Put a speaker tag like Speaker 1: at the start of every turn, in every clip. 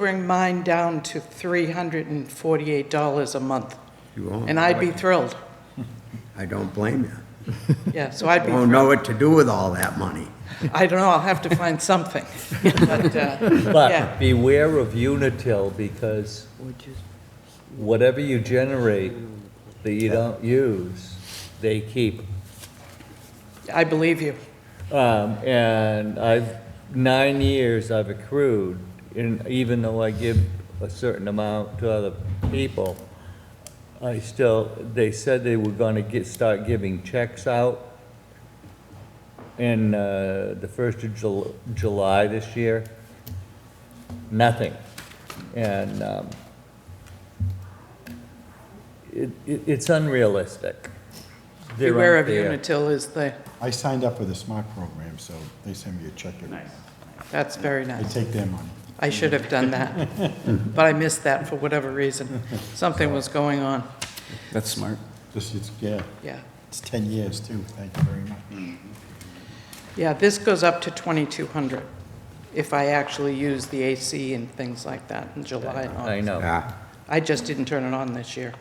Speaker 1: bring mine down to $348 a month.
Speaker 2: You won't.
Speaker 1: And I'd be thrilled.
Speaker 2: I don't blame you.
Speaker 1: Yeah, so I'd be,
Speaker 2: Don't know what to do with all that money.
Speaker 1: I don't know, I'll have to find something. But, uh, yeah.
Speaker 3: But beware of Unitil, because whatever you generate that you don't use, they keep.
Speaker 1: I believe you.
Speaker 3: Um, And I've, nine years I've accrued, and even though I give a certain amount to other people, I still, they said they were gonna get, start giving checks out in uh, the first of Jul- July this year. Nothing. And um, it, it- it's unrealistic. They're
Speaker 1: Beware of
Speaker 3: unfair.
Speaker 1: Unitil is the,
Speaker 4: I signed up for the SMART program, so they send me a check. every month.
Speaker 1: that's very
Speaker 4: I
Speaker 1: nice.
Speaker 4: take their money.
Speaker 1: I should have done that. But I missed that for whatever reason. Something was going on.
Speaker 5: That's smart.
Speaker 4: Just, it's, yeah,
Speaker 1: Yeah.
Speaker 4: it's 10 years too. Thank you very much.
Speaker 1: Yeah, this goes up to 2,200 if I actually use the AC and things like that in July and
Speaker 3: I
Speaker 1: August.
Speaker 3: know.
Speaker 2: Yeah,
Speaker 1: I just didn't turn it on this year.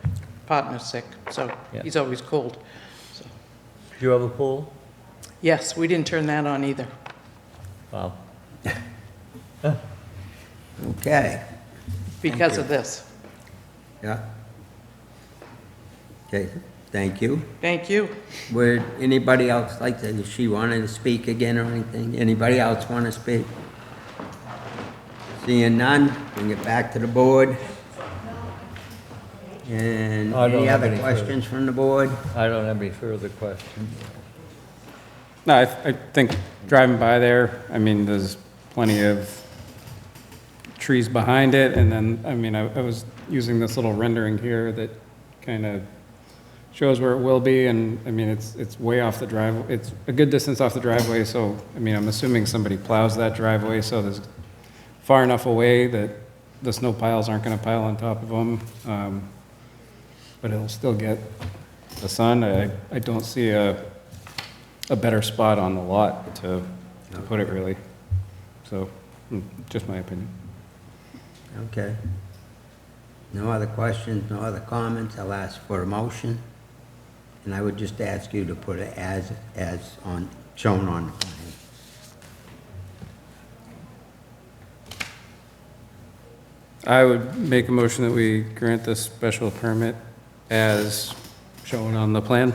Speaker 1: Partner's sick, so
Speaker 3: Yeah.
Speaker 1: he's always cold. So-
Speaker 3: Do you have a pool?
Speaker 1: Yes, we didn't turn that on either.
Speaker 3: Wow.
Speaker 2: okay,
Speaker 1: because of this.
Speaker 2: yeah. Okay, thank you.
Speaker 1: Thank you.
Speaker 2: Would anybody else like to, if she wanted to speak again or anything? Anybody else want to speak? Seeing none, bring it back to the board. And
Speaker 3: I don't
Speaker 2: any
Speaker 3: have
Speaker 2: other
Speaker 3: any further.
Speaker 2: questions from the board?
Speaker 3: I don't have any further questions.
Speaker 5: No, I, I think driving by there, I mean, there's plenty of trees behind it, and then, I mean, I, I was using this little rendering here that kind of shows where it will be, and, I mean, it's, it's way off the drive, it's a good distance off the driveway, so, I mean, I'm assuming somebody plows that driveway, so there's far enough away that the snow piles aren't gonna pile on top of them, um, but it'll still get the sun. I, I don't see a, a better spot on the lot to, to put it really. So, mm, just my opinion.
Speaker 2: Okay. No other questions, no other comments, I'll ask for a motion. And I would just ask you to put it as, as on, shown on the plan.
Speaker 5: I would make a motion that we grant this special permit as shown on the plan.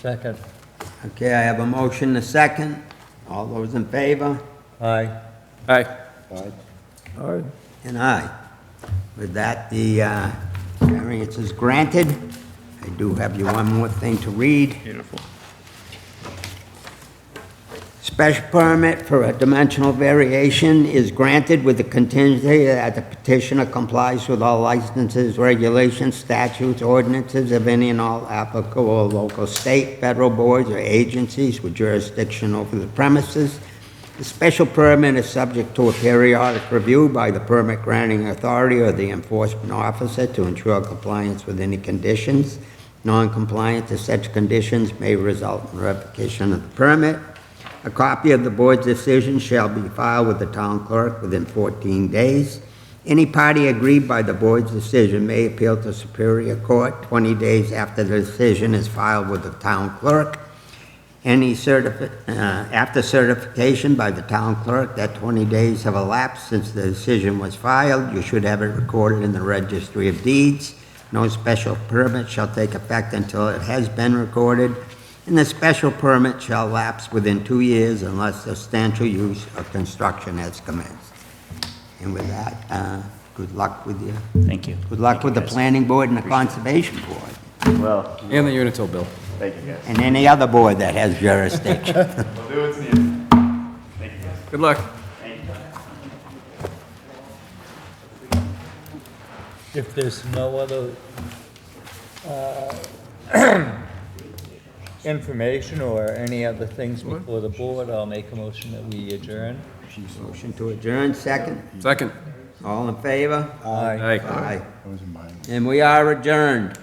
Speaker 3: Second.
Speaker 2: Okay, I have a motion, a second. All those in favor?
Speaker 3: Aye.
Speaker 5: Aye.
Speaker 3: Aye.
Speaker 2: And aye. With that, the uh, variance is granted. I do have you one more thing to read. Beautiful. Special permit for a dimensional variation is granted with the contingency that the petitioner complies with all licenses, regulations, statutes, ordinances of any and all applicable local, state, federal boards or agencies with jurisdiction over the premises. The special permit is subject to a periodic review by the permit granting authority or the enforcement officer to ensure compliance with any conditions. Non-compliance to such conditions may result in revocation of the permit. A copy of the board's decision shall be filed with the town clerk within 14 days. Any party aggrieved by the board's decision may appeal to Superior Court 20 days after the decision is filed with the town clerk. Any certifi, uh, after certification by the town clerk that 20 days have elapsed since the decision was filed, you should have it recorded in the registry of deeds. No special permit shall take effect until it has been recorded, and the special permit shall lapse within two years unless substantial use or construction has commenced. And with that, uh, good luck with you.
Speaker 6: Thank you.
Speaker 2: Good luck with the planning board and the conservation board,
Speaker 6: Well,
Speaker 5: And the Unitil bill.
Speaker 6: thank you guys.
Speaker 2: and any other board that has jurisdiction.
Speaker 6: We'll do what's needed. Thank you guys.
Speaker 5: Good luck.
Speaker 6: Thank you.
Speaker 3: If there's no other uh, information or any other things before the board, I'll make a motion that we adjourn.
Speaker 2: Motion to adjourn, second.
Speaker 5: Second.
Speaker 2: All in favor?
Speaker 3: Aye.
Speaker 2: Aye.
Speaker 4: That was in my.
Speaker 2: And we are adjourned.